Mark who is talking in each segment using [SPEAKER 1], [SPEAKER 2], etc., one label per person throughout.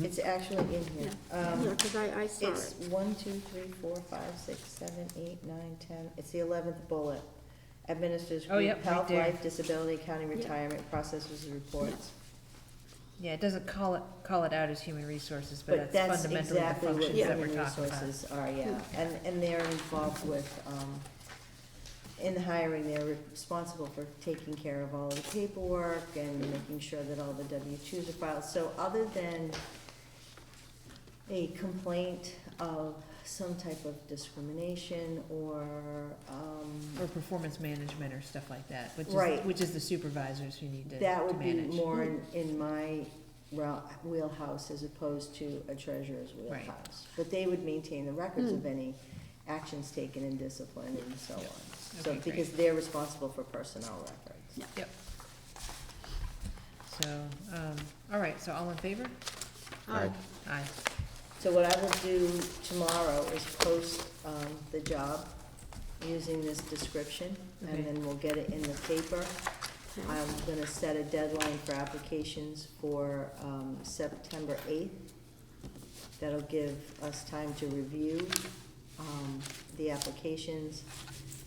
[SPEAKER 1] It's actually in here. Um,
[SPEAKER 2] because I, I saw
[SPEAKER 1] It's
[SPEAKER 2] it.
[SPEAKER 1] one, two, three, four, five, six, seven, eight, nine, ten, it's the eleventh bullet. Administers
[SPEAKER 3] Oh, yep,
[SPEAKER 1] group
[SPEAKER 3] right
[SPEAKER 1] health,
[SPEAKER 3] there.
[SPEAKER 1] life, disability, county
[SPEAKER 2] Yeah.
[SPEAKER 1] retirement processes and reports.
[SPEAKER 3] Yeah, it doesn't call it, call it out as human resources, but
[SPEAKER 1] But
[SPEAKER 3] that's
[SPEAKER 1] that's
[SPEAKER 3] fundamentally the
[SPEAKER 1] exactly what
[SPEAKER 3] functions that we're
[SPEAKER 1] human
[SPEAKER 3] talking about.
[SPEAKER 1] resources are, yeah, and, and they're involved with, um, in hiring, they're responsible for taking care of all the paperwork and making sure that all the W twos are filed, so other than a complaint of some type of discrimination or, um,
[SPEAKER 3] Or performance management or stuff like that, which is,
[SPEAKER 1] Right.
[SPEAKER 3] which is the supervisors who need to,
[SPEAKER 1] that
[SPEAKER 3] to
[SPEAKER 1] would be
[SPEAKER 3] manage. Hmm.
[SPEAKER 1] more in, in my rel- wheelhouse as opposed to a treasurer's
[SPEAKER 3] Right. Hmm.
[SPEAKER 1] wheelhouse. But they would maintain the records of any actions taken in discipline and so on. So,
[SPEAKER 3] Okay, great.
[SPEAKER 1] because they're responsible for personnel records.
[SPEAKER 2] Yeah.
[SPEAKER 3] So, um, all right, so all in favor?
[SPEAKER 2] Aye.
[SPEAKER 3] Aye.
[SPEAKER 1] So what I will do tomorrow is post, um, the job using this description,
[SPEAKER 3] Okay.
[SPEAKER 1] and then we'll get it in the paper. I'm gonna set a deadline for applications for, um, September eighth. That'll give us time to review, um, the applications.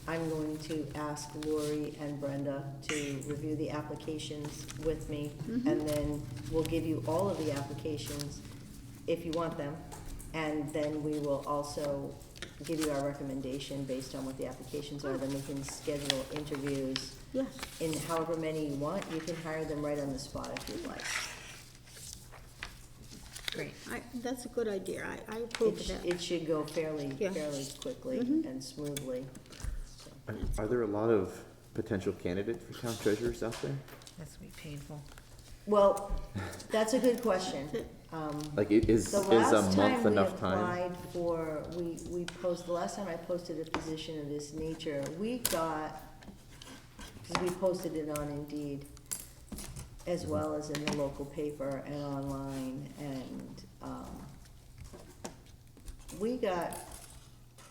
[SPEAKER 1] I'm going to ask Lori and Brenda to review the applications with me, and then we'll give you all of the applications if you want them. And then we will also give you our recommendation based on what the applications are, then we can schedule interviews
[SPEAKER 2] Yes,
[SPEAKER 1] in however many you want, you can hire them right on the spot if you'd like.
[SPEAKER 3] Great.
[SPEAKER 2] I, that's a good idea. I, I approve
[SPEAKER 1] It, Mm-hmm.
[SPEAKER 2] of
[SPEAKER 1] sh-
[SPEAKER 2] that.
[SPEAKER 1] it should go fairly,
[SPEAKER 2] Yeah.
[SPEAKER 1] fairly quickly
[SPEAKER 2] Mhm.
[SPEAKER 1] and smoothly. So,
[SPEAKER 4] Are- Are there a lot of potential candidates for town treasurers out there?
[SPEAKER 3] That's gonna be painful.
[SPEAKER 1] Well, that's a good question. Um,
[SPEAKER 4] Like, i- is, is
[SPEAKER 1] The
[SPEAKER 4] a
[SPEAKER 1] last time
[SPEAKER 4] month
[SPEAKER 1] we
[SPEAKER 4] enough time?
[SPEAKER 1] applied for, we, we posted, the last time I posted a position of this nature, we got, because we posted it on Indeed, as
[SPEAKER 4] Mm-hmm.
[SPEAKER 1] well as in the local paper and online, and, um, we got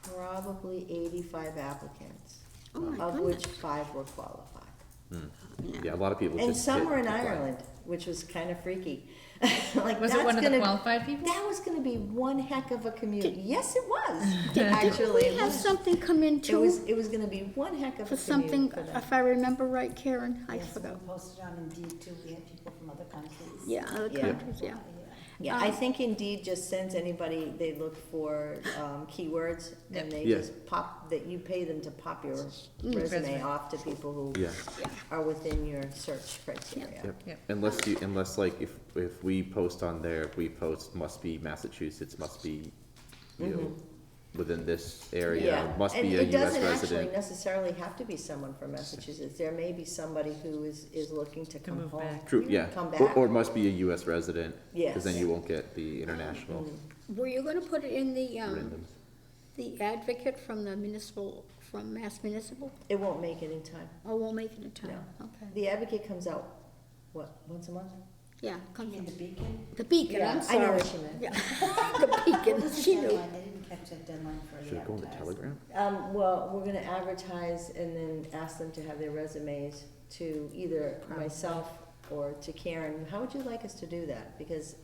[SPEAKER 1] probably eighty-five applicants,
[SPEAKER 2] Oh, my
[SPEAKER 1] of
[SPEAKER 2] goodness.
[SPEAKER 1] which five were qualified.
[SPEAKER 4] Yeah, a lot of people just.
[SPEAKER 1] And some
[SPEAKER 4] hit
[SPEAKER 1] were in
[SPEAKER 4] apply.
[SPEAKER 1] Ireland, which was kind of freaky. Like,
[SPEAKER 3] Was
[SPEAKER 1] that's
[SPEAKER 3] it one of the
[SPEAKER 1] gonna-
[SPEAKER 3] qualified people?
[SPEAKER 1] that was gonna be one heck of a commute. Yes, it was,
[SPEAKER 2] Didn't
[SPEAKER 1] actually.
[SPEAKER 2] we have something come in
[SPEAKER 1] It was,
[SPEAKER 2] too,
[SPEAKER 1] it was gonna be one heck of
[SPEAKER 2] for
[SPEAKER 1] a commute
[SPEAKER 2] something,
[SPEAKER 1] for them.
[SPEAKER 2] if I remember right, Karen? I
[SPEAKER 5] Yes, we
[SPEAKER 2] forgot.
[SPEAKER 5] posted on Indeed too, we had people from other countries.
[SPEAKER 2] Yeah, other
[SPEAKER 1] Yeah.
[SPEAKER 2] countries, yeah.
[SPEAKER 1] Yeah,
[SPEAKER 2] um,
[SPEAKER 1] I think Indeed just sends anybody, they look for, um, keywords and they
[SPEAKER 4] Yeah.
[SPEAKER 1] just pop, that you pay them to pop your
[SPEAKER 2] Mm.
[SPEAKER 3] Resume.
[SPEAKER 1] resume off to people who
[SPEAKER 4] Yeah,
[SPEAKER 1] are within your search criteria.
[SPEAKER 4] yep.
[SPEAKER 3] Yep.
[SPEAKER 4] Unless you, unless like, if, if we post on there, if we post must be Massachusetts, must be, you know, within this area, must
[SPEAKER 1] Mm-hmm. and
[SPEAKER 4] be a
[SPEAKER 1] it
[SPEAKER 4] US
[SPEAKER 1] doesn't actually
[SPEAKER 4] resident.
[SPEAKER 1] necessarily have to be someone from Massachusetts. There may be somebody who is, is looking to come
[SPEAKER 3] move
[SPEAKER 1] home.
[SPEAKER 3] back.
[SPEAKER 4] True, yeah.
[SPEAKER 1] Come
[SPEAKER 4] Or,
[SPEAKER 1] back.
[SPEAKER 4] or must be a US resident. Cause then
[SPEAKER 1] Yes. Mm-hmm.
[SPEAKER 4] you won't get the international
[SPEAKER 2] Were you gonna put it in the, um,
[SPEAKER 4] randoms.
[SPEAKER 2] the advocate from the municipal, from Mass Municipal?
[SPEAKER 1] It won't make it in time.
[SPEAKER 2] Or we'll make it in time? Okay.
[SPEAKER 1] The advocate comes out, what, once a month?
[SPEAKER 2] Yeah,
[SPEAKER 5] You
[SPEAKER 2] come
[SPEAKER 5] mean the
[SPEAKER 2] in.
[SPEAKER 5] beacon?
[SPEAKER 2] The beacon,
[SPEAKER 1] Yeah,
[SPEAKER 2] I'm
[SPEAKER 1] I know
[SPEAKER 2] sorry.
[SPEAKER 1] what you meant.
[SPEAKER 2] Yeah, the beacon, she
[SPEAKER 5] Deadline,
[SPEAKER 2] knew.
[SPEAKER 5] They didn't catch that deadline for
[SPEAKER 4] Should
[SPEAKER 5] the
[SPEAKER 4] it go on the
[SPEAKER 5] advertising.
[SPEAKER 4] telegram?
[SPEAKER 1] Um, well, we're gonna advertise and then ask them to have their resumes to either myself or to Karen. How would you like us to do that? Because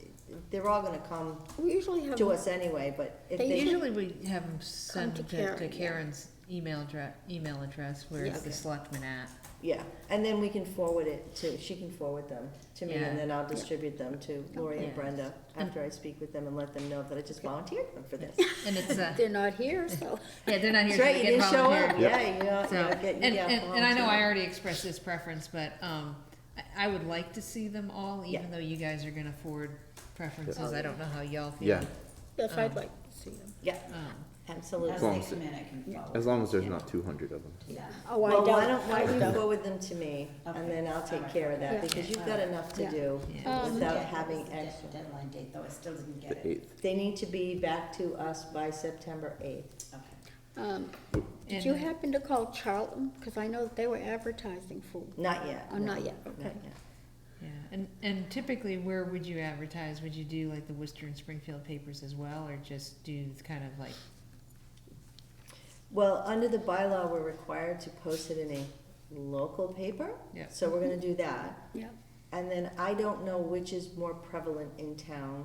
[SPEAKER 1] they're all gonna come
[SPEAKER 2] We usually have.
[SPEAKER 1] to us anyway, but if
[SPEAKER 2] They
[SPEAKER 1] they,
[SPEAKER 3] Usually we have them send
[SPEAKER 2] to
[SPEAKER 3] to
[SPEAKER 2] Karen,
[SPEAKER 3] to
[SPEAKER 2] yeah.
[SPEAKER 3] Karen's email address, email address, where
[SPEAKER 2] Yeah.
[SPEAKER 3] it's the
[SPEAKER 2] Okay.
[SPEAKER 3] selectman at.
[SPEAKER 1] yeah, and then we can forward it to, she can forward them to me
[SPEAKER 3] Yeah. Oh,
[SPEAKER 1] and then I'll distribute them to Lori
[SPEAKER 3] Yeah.
[SPEAKER 1] and Brenda after I speak with them and let them know that I just volunteered them for this.
[SPEAKER 3] And it's, uh,
[SPEAKER 2] They're not here, so.
[SPEAKER 3] yeah, they're not
[SPEAKER 1] That's
[SPEAKER 3] here, so
[SPEAKER 1] right,
[SPEAKER 3] they
[SPEAKER 1] you
[SPEAKER 3] get
[SPEAKER 1] didn't show
[SPEAKER 3] volunteered.
[SPEAKER 1] up, yeah, you got,
[SPEAKER 3] So,
[SPEAKER 1] you got,
[SPEAKER 3] and,
[SPEAKER 1] you got
[SPEAKER 3] and, and I know I
[SPEAKER 1] volunteered.
[SPEAKER 3] already expressed this preference, but, um, I, I would like to see them all,
[SPEAKER 1] Yeah. Oh,
[SPEAKER 3] even though you guys are gonna forward preferences, I don't know how y'all feel.
[SPEAKER 4] Yeah,
[SPEAKER 2] Yes,
[SPEAKER 1] Uh-huh.
[SPEAKER 2] I'd like to see them.
[SPEAKER 1] Yeah,
[SPEAKER 3] Um,
[SPEAKER 1] absolutely.
[SPEAKER 5] As they come in, I can follow.
[SPEAKER 4] as long as there's not two hundred of them.
[SPEAKER 5] Yeah.
[SPEAKER 2] Oh, I
[SPEAKER 1] Well,
[SPEAKER 2] don't.
[SPEAKER 1] why don't, why
[SPEAKER 2] I
[SPEAKER 1] don't you
[SPEAKER 2] don't.
[SPEAKER 1] forward them to me, and
[SPEAKER 5] Okay.
[SPEAKER 1] then I'll take care of
[SPEAKER 2] Yeah.
[SPEAKER 1] that, because you've got enough to
[SPEAKER 2] Yeah.
[SPEAKER 1] do
[SPEAKER 3] Yeah.
[SPEAKER 2] Um,
[SPEAKER 1] without
[SPEAKER 5] Yeah, it was
[SPEAKER 1] having
[SPEAKER 5] the dead-
[SPEAKER 1] extra.
[SPEAKER 5] Deadline date, though, I still didn't get
[SPEAKER 4] The
[SPEAKER 5] it.
[SPEAKER 4] eighth,
[SPEAKER 1] They need to be back to us by September eighth.
[SPEAKER 5] Okay.
[SPEAKER 2] Um, Did
[SPEAKER 3] And
[SPEAKER 2] you
[SPEAKER 3] then-
[SPEAKER 2] happen to call Charlton? Because I know that they were advertising for,
[SPEAKER 1] Not yet.
[SPEAKER 2] oh,
[SPEAKER 1] no,
[SPEAKER 2] not yet, okay.
[SPEAKER 1] Not yet.
[SPEAKER 3] Yeah, and, and typically, where would you advertise? Would you do like the Worcester and Springfield papers as well, or just do kind of like,
[SPEAKER 1] Well, under the bylaw, we're required to post it in a local paper,
[SPEAKER 3] yeah?
[SPEAKER 1] so we're gonna do that.
[SPEAKER 2] Yeah,
[SPEAKER 1] And then I don't know which is more prevalent in town,